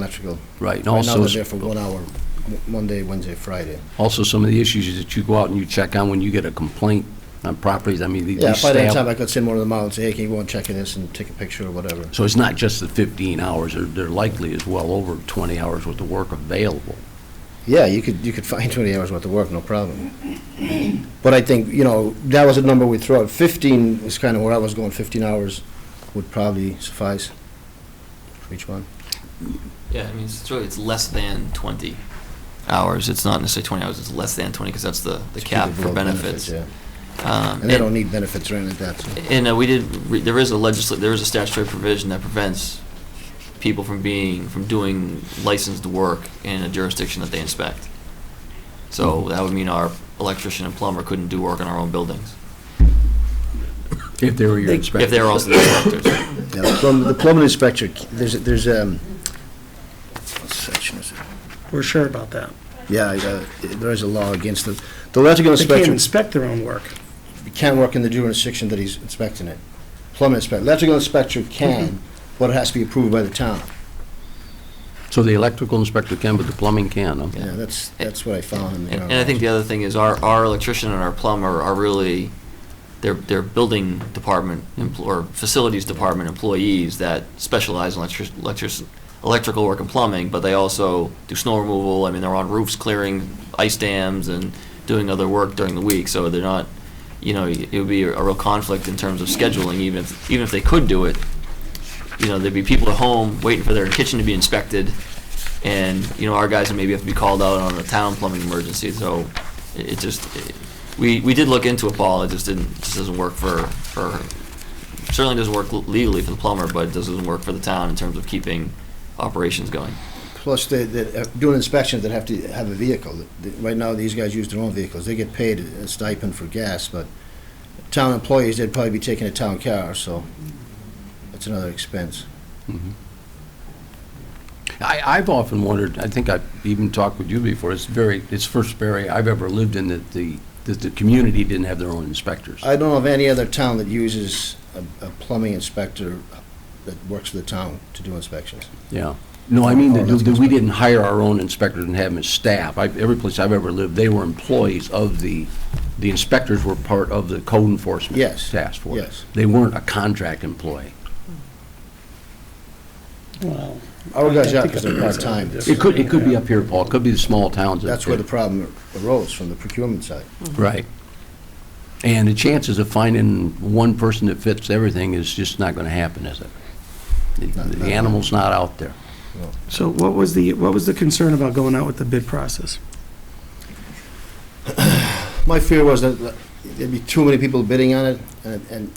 electrical. Right, Right and now, also, they're there for one hour, Mo- Monday, Wednesday, Friday. also some of the issues that you go out and you check on when you get a complaint on properties, I mean, the- Yeah, these by that time, staff. I could send one of them out and say, hey, can you go and check in this and take a picture or whatever. So it's not just the 15 hours, they're- they're likely as well over 20 hours with the work available. Yeah, you could, you could find 20 hours worth of work, no problem. But I think, you know, that was a number we threw out. 15 is kind of where I was going, 15 hours would probably suffice for each one. Yeah, I mean, it's really, it's less than 20 hours. It's not necessarily 20 hours, it's less than 20 because that's the, the To keep cap it for below benefits. yeah. Um, And they don't need benefits or anything like that. so. And uh, we did, re- there is a legisl, there is a statutory provision that prevents people from being, from doing licensed work in a jurisdiction that they inspect. Hmm. So that would mean our electrician and plumber couldn't do work in our own buildings, If they were your They- inspector. if they were also the inspectors. Yeah, the plumb- The plumbing inspector, there's, there's, um, what section is it? We're sure about that. Yeah, I got it. there is a law against it. The electrical They can't inspector inspect their own work. can't work in the jurisdiction that he's inspecting it. Plumbing inspector, electrical inspector can, Mm-hmm. but it has to be approved by the town. So the electrical inspector can, but the plumbing can, huh? Yeah. Yeah, that's, that's what I found in the. And and I think the other thing is our, our electrician and our plumber are really, they're, they're building department, empl- or facilities department employees that specialize in electric, electric, electrical work and plumbing, but they also do snow removal, I mean, they're on roofs clearing ice dams and doing other work during the week, so they're not, you know, it would be a real conflict in terms of scheduling, even if, even if they could do it. You know, there'd be people at home waiting for their kitchen to be inspected, and, you know, our guys would maybe have to be called out on a town plumbing emergency, so it it just, it- we, we did look into it, Paul, it just didn't, it just doesn't work for, for, certainly doesn't work legally for the plumber, but it doesn't work for the town in terms of keeping operations going. Plus, they, they, uh, doing inspections, they have to have a vehicle. The- Right now, these guys use their own vehicles. They get paid a stipend for gas, but town employees, they'd probably be taking a town car, so that's another expense. I, I've often wondered, I think I've even talked with you before, it's very, it's first area I've ever lived in that the, that the community didn't have their own inspectors. I don't know of any other town that uses a, a plumbing inspector that works for the town to do inspections. Yeah. No, I mean, Oh, that that's that we good. didn't hire our own inspectors and have them as staff. I- Every place I've ever lived, they were employees of the, the inspectors were part of the code enforcement Yes, task force. yes. They weren't a contract employee. Well, Our guys out think because they're that's part-time. something It could, it could be up here, Paul, it could be the small towns. that- That's where the problem arose, from the procurement side. Right. And the chances of finding one person that fits everything is just not going to happen, is it? The- Not- The not- animal's not out there. So what was the, what was the concern about going out with the bid process? My fear was that there'd be too many people bidding on it, and, and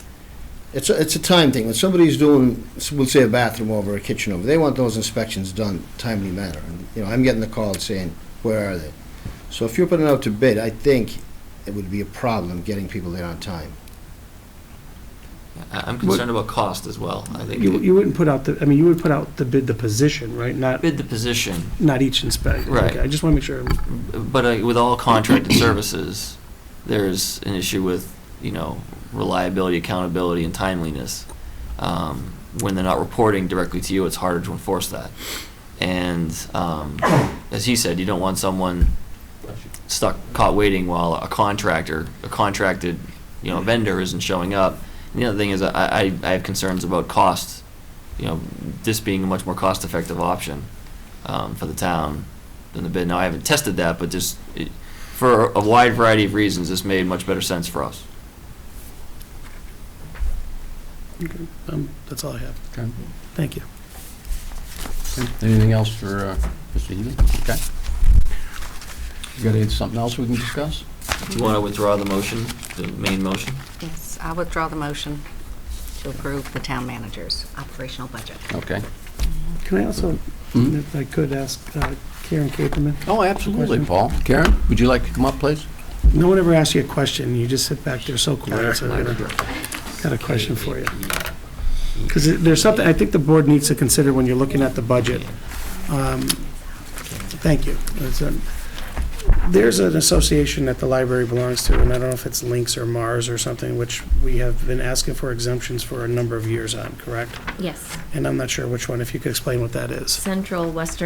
it's, a- it's a time thing. When somebody's doing, we'll say a bathroom over, a kitchen over, they want those inspections done timely manner. And, You know, I'm getting the call saying, where are they? So if you're putting it out to bid, I think it would be a problem getting people there on time. I- I'm concerned about cost as well, I You, think. you wouldn't put out the, I mean, you would put out the bid, the position, right? Not, Bid the position, not each inspect. Right. Okay, I just want to make sure. but uh, with all contracted services, there's an issue with, you know, reliability, accountability, and timeliness. Um, When they're not reporting directly to you, it's harder to enforce that. And um, as he said, you don't want someone stuck, caught waiting while a contractor, a contracted, you know, vendor isn't showing up. And the other thing is, I, I, I have concerns about costs, you know, this being a much more cost-effective option um, for the town than the bid. Now, I haven't tested that, but just, it- for a wide variety of reasons, this made much better sense for us. Okay, um, That's all I have. Okay. Thank you. Anything else for uh, Mr. Healy? Okay. You got any- something else we can discuss? Do you want to withdraw the motion, the main motion? Yes, I withdraw the motion to approve the town manager's operational budget. Okay. Can I also, Mhm. if I could ask uh, Karen Caperman? Oh, absolutely, Paul. Karen, would you like to come up, please? No one ever asks you a question, you just sit back there so quiet, so I got a question for you. Because there's something, I think the board needs to consider when you're looking at the budget. Um, Thank you. It's, um, there's an association that the library belongs to, and I don't know if it's Lynx or Mars or something, which we have been asking for exemptions for a number of years on, correct? Yes, And I'm not sure which one, if you could explain what that is. Central Western